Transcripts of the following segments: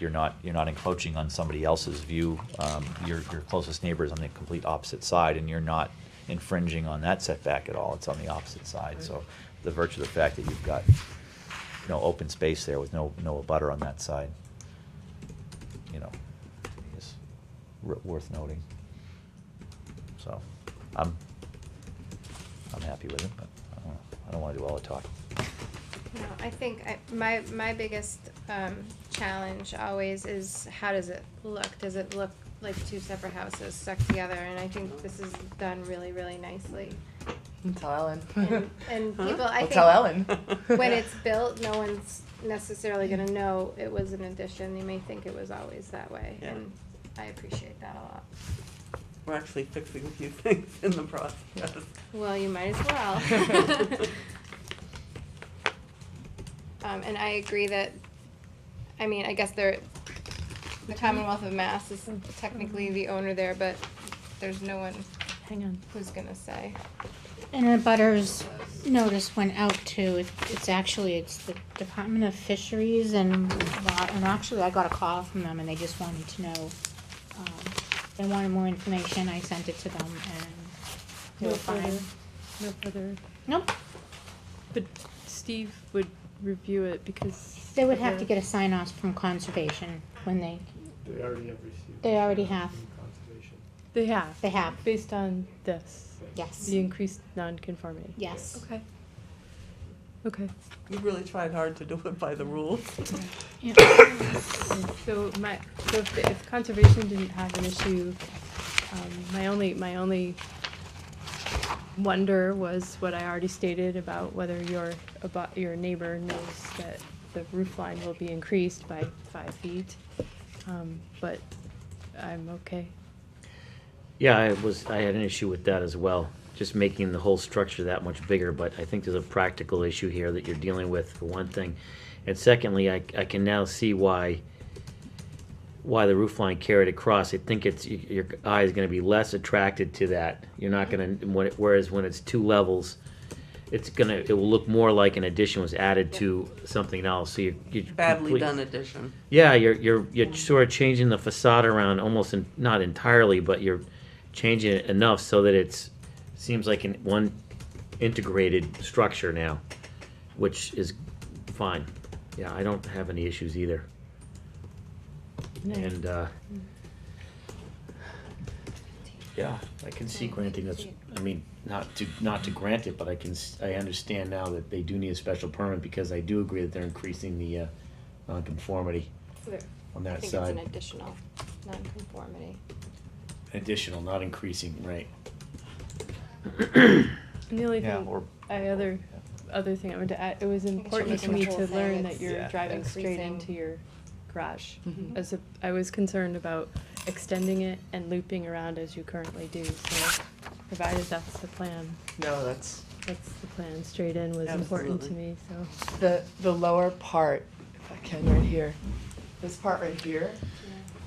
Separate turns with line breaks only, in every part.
you're not, you're not encroaching on somebody else's view. Um, Your, your closest neighbor is on the complete opposite side, and you're not infringing on that setback at all. It's on the opposite side, so the virtue of the fact that you've got, you know, open space there with no, no butter on that side, you know, is wor- worth noting. So, I'm, I'm happy with it, but I don't, I don't wanna do all the talking.
No, I think I, my, my biggest, um, challenge always is how does it look? Does it look like two separate houses stuck together? And I think this is done really, really nicely.
I'll Tell Ellen.
And- and
Huh?
people- I
I'll
think
tell Ellen.
When it's built, no one's necessarily gonna know it was an addition. They may think it was always that way,
Yeah.
and I appreciate that a lot.
We're actually fixing a few things in the process.
Well, you might as well. Um, and I agree that, I mean, I guess they're, the Commonwealth of Mass is technically the owner there, but there's no one
Hang on.
who's gonna say.
And a butters notice went out to, it- it's actually, it's the Department of Fisheries and, Wa- and actually I got a call from them and they just wanted to know, um, they wanted more information, I sent it to them and they
No
were fine.
further- No further,
Nope,
but Steve would review it because.
they would have to get a sign off from conservation when they,
They already have received.
They already
consent
have.
from Conservation.
They have.
They have.
Based on this,
yes,
the increased nonconformity.
yes.
Okay. Okay.
We really tried hard to do it by the rules.
Yeah.
So my, so if, the- if conservation didn't have an issue, um, my only, my only wonder was what I already stated about whether your, about, your neighbor knows that the roof line will be increased by five feet. Um, but I'm okay.
Yeah, I was, I had an issue with that as well, just making the whole structure that much bigger, but I think there's a practical issue here that you're dealing with, for one thing. And secondly, I, I can now see why, why the roof line carried across. I think it's, y- your eye is gonna be less attracted to that. You're not gonna, when it- whereas when it's two levels, it's gonna, it will look more like an addition was added to something else, so you're. you're
Badly
complete-
done addition.
yeah, you're you're you're sort of changing the facade around almost in, not entirely, but you're changing it enough so that it's seems like an one integrated structure now, which is fine. Yeah, I don't have any issues either. And uh, yeah, I can see granting that's. I mean, not to not to grant it, but I can s- I understand now that they do need a special permit because I do agree that they're increasing the uh, nonconformity on
I
that
think it's an
side.
additional nonconformity.
Additional, not increasing, right?
And the only
Yeah,
thing,
or-
I other, other thing I wanted to add, it was
think it's
important to
making
me
the
to
whole thing,
learn
it's
that you're
Yeah.
driving straight
increasing.
into your garage.
Mm-hmm.
Mhm.
As a, I was concerned about extending it and looping around as you currently do, so provided that's the plan,
No, that's.
that's the plan, straight in was important to
Absolutely.
me, so.
The, the lower part, if I can, right here, this part right here,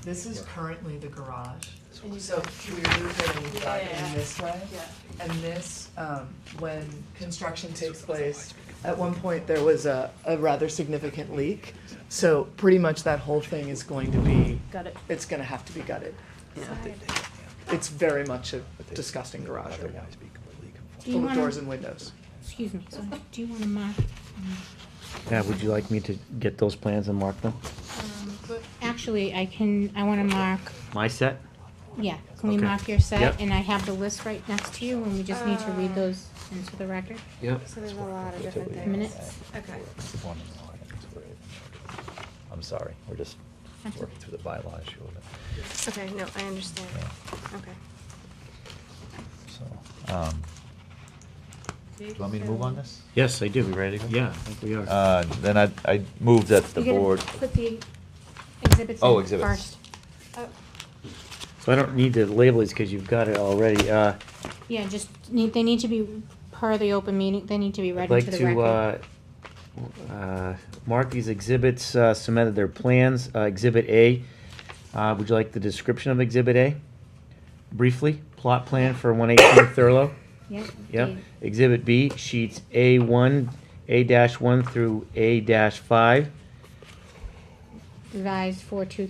this is currently the garage. So through the
Yeah.
garden this way. And this, um, when construction takes place, at one point, there was a, a rather significant leak. So pretty much that whole thing is going to be,
Got it.
it's gonna have to be gutted.
Yeah.
It's very much a disgusting garage right now,
Do you
full of
wanna-
doors and windows.
Excuse me, sorry, do you wanna mark, um,
Yeah, would you like me to get those plans and mark them?
Um,
actually, I can, I wanna mark
My set?
Yeah, can we
Okay.
mark your set?
Yep.
And I have the list right next to you, and we just need to
Uh,
read those into the record.
Yep.
So there's a lot of different things.
Minutes.
Okay.
One and all, I think it's great. I'm sorry, we're just
That's
working
okay.
through the bylaw issue of it.
Okay, no, I understand. Okay.
So, um, do you want me to move on this?
Yes, I do. We ready to go? Yeah, I think we are.
Uh, Then I, I move that the
You gotta
board,
Put the exhibits
Oh,
in
exhibits.
first.
Oh,
So I don't need to label these because you've got it already. Uh,
Yeah, just need, they need to be, per the open meeting, they need to be
I'd
read
like
into the
to,
record.
uh, uh, mark these exhibits, uh, submitted their plans. Uh, Exhibit A, uh, would you like the description of Exhibit A? Briefly, plot plan for one eighteen Thurlow?
Yep.
Yep.
the-
Exhibit B, sheets A1, A-1 through A-5.
revised four two